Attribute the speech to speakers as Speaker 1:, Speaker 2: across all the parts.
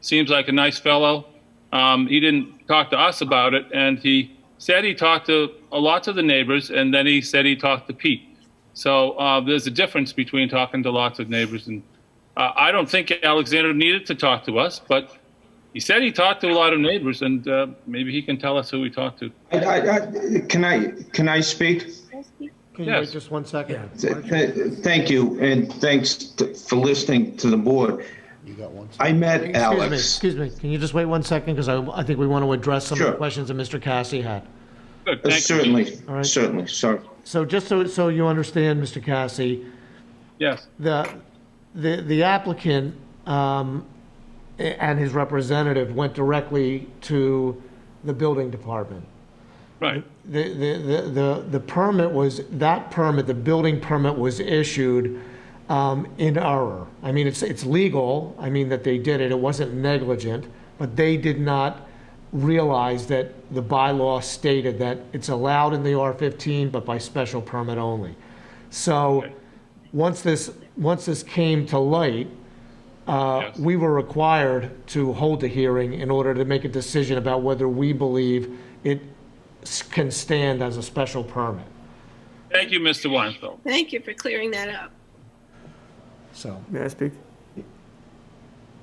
Speaker 1: Seems like a nice fellow. Um, he didn't talk to us about it, and he said he talked to a lot of the neighbors, and then he said he talked to Pete. So uh, there's a difference between talking to lots of neighbors, and uh, I don't think Alexander needed to talk to us, but he said he talked to a lot of neighbors, and uh, maybe he can tell us who he talked to.
Speaker 2: I- I- I- Can I, can I speak?
Speaker 3: Can you wait
Speaker 1: Yes.
Speaker 3: just one second?
Speaker 2: Th- th- Thank you, and thanks t- for listening to the board. I met
Speaker 3: Excuse me,
Speaker 2: Alex.
Speaker 3: excuse me, can you just wait one second, because I, I think we want to address some of the
Speaker 2: Sure.
Speaker 3: questions that Mr. Cassie had.
Speaker 1: Good,
Speaker 2: Uh,
Speaker 1: thank you.
Speaker 2: Certainly,
Speaker 3: right.
Speaker 2: certainly, sorry.
Speaker 3: So just so, so you understand, Mr. Cassie,
Speaker 1: Yes,
Speaker 3: the, the the applicant um, a- and his representative went directly to the building department.
Speaker 1: right.
Speaker 3: The, the, the- the, the permit was, that permit, the building permit was issued um, in error. I mean, it's, it's legal, I mean, that they did it, it wasn't negligent, but they did not realize that the bylaw stated that it's allowed in the R-15, but by special permit only. So, once this, once this came to light,
Speaker 1: yes.
Speaker 3: we were required to hold a hearing in order to make a decision about whether we believe it s- can stand as a special permit.
Speaker 1: Thank you, Mr. Weinfeld.
Speaker 4: Thank you for clearing that up.
Speaker 3: So,
Speaker 5: May I speak?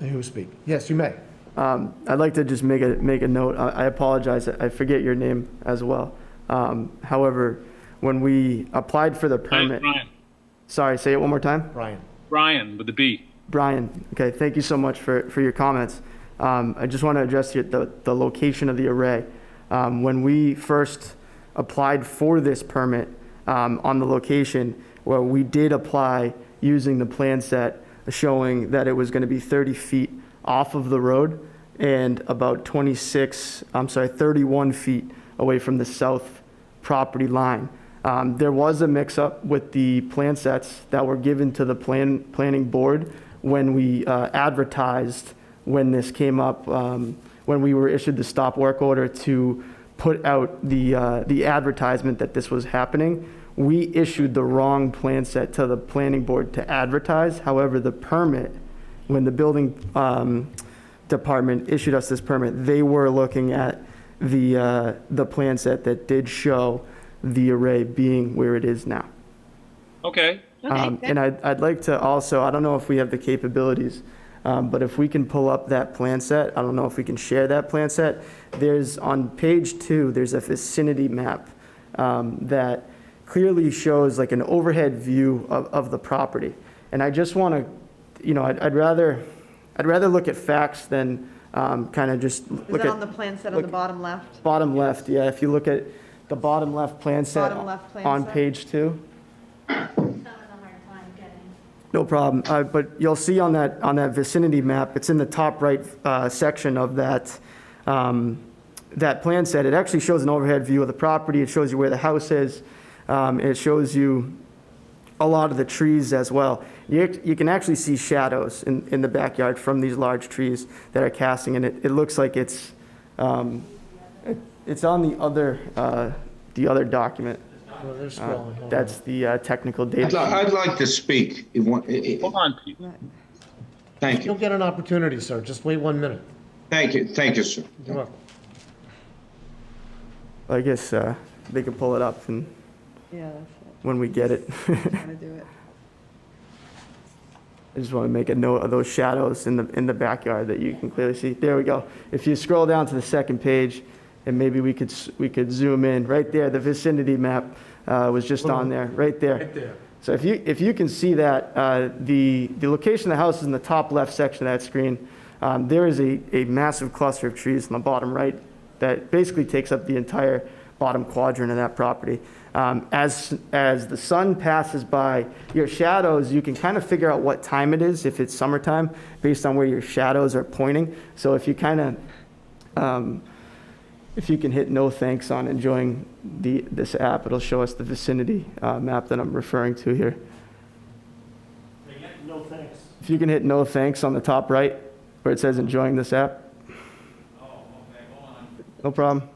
Speaker 3: who speak? Yes, you may.
Speaker 5: Um, I'd like to just make a, make a note. I I apologize, I forget your name as well. Um, However, when we applied for the permit,
Speaker 1: Brian,
Speaker 5: sorry, say it one more time?
Speaker 3: Brian.
Speaker 1: Brian with the B.
Speaker 5: Brian, okay, thank you so much for, for your comments. Um, I just want to address your- the, the location of the array. Um, when we first applied for this permit um, on the location, well, we did apply using the plan set showing that it was going to be 30 feet off of the road and about 26, I'm sorry, 31 feet away from the south property line. Um, There was a mix-up with the plan sets that were given to the plan, planning board when we uh, advertised, when this came up, um, when we were issued the stop work order to put out the, uh, the advertisement that this was happening. We issued the wrong plan set to the planning board to advertise. However, the permit, when the building um, department issued us this permit, they were looking at the, uh, the plan set that did show the array being where it is now.
Speaker 1: Okay,
Speaker 4: Okay,
Speaker 5: Um, And
Speaker 4: that-
Speaker 5: I'd, I'd like to also, I don't know if we have the capabilities, um, but if we can pull up that plan set, I don't know if we can share that plan set. There's, on page two, there's a vicinity map um, that clearly shows like an overhead view of, of the property. And I just want to, you know, I'd, I'd rather, I'd rather look at facts than kind of just
Speaker 6: Is
Speaker 5: look
Speaker 6: that on the
Speaker 5: at
Speaker 6: plan set on the
Speaker 5: look-
Speaker 6: bottom left?
Speaker 5: bottom left, yeah, if you look at the bottom left plan set
Speaker 6: Bottom left plan
Speaker 5: on
Speaker 6: set.
Speaker 5: page two.
Speaker 7: some of them are fine getting.
Speaker 5: No problem, Uh, but you'll see on that, on that vicinity map, it's in the top right uh, section of that, um, that plan set. It actually shows an overhead view of the property, it shows you where the house is, Um, it shows you a lot of the trees as well. You act- you can actually see shadows in in the backyard from these large trees that are casting, and it it looks like it's, um, it- it's on the other, uh, the other document. That's the uh, technical data.
Speaker 2: I'd li-
Speaker 5: sheet.
Speaker 2: I'd like to speak. if one- i- i-
Speaker 1: hold on, Pete.
Speaker 2: Thank
Speaker 3: You'll
Speaker 2: you,
Speaker 3: get an opportunity, sir, just wait one minute.
Speaker 2: thank you, thank you, sir.
Speaker 3: You're welcome.
Speaker 5: I guess uh, they could pull it up and
Speaker 6: Yeah, that's
Speaker 5: when we get it.
Speaker 6: it. How to do it.
Speaker 5: I just want to make a note of those shadows in the, in the backyard that you can clearly see. There we go. If you scroll down to the second page, and maybe we could, s- we could zoom in, right there, the vicinity map uh, was just on there, right there. Right there. So if you, if you can see that, uh, the, the location of the house is in the top left section of that screen. Um, There is a, a massive cluster of trees in the bottom right that basically takes up the entire bottom quadrant of that property. Um, As, as the sun passes by, your shadows, you can kind of figure out what time it is, if it's summertime, based on where your shadows are pointing. So if you kind of, um, if you can hit no thanks on enjoying the, this app, it'll show us the vicinity uh, map that I'm referring to here.
Speaker 3: No, thanks.
Speaker 5: If you can hit no thanks on the top right, where it says enjoying this app. No problem.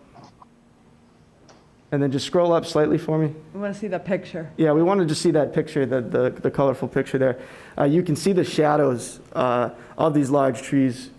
Speaker 5: And then just scroll up slightly for me.
Speaker 6: We want to see the picture.
Speaker 5: Yeah, we want to just see that picture, the, the, the colorful picture there. Uh, you can see the shadows uh, of these large trees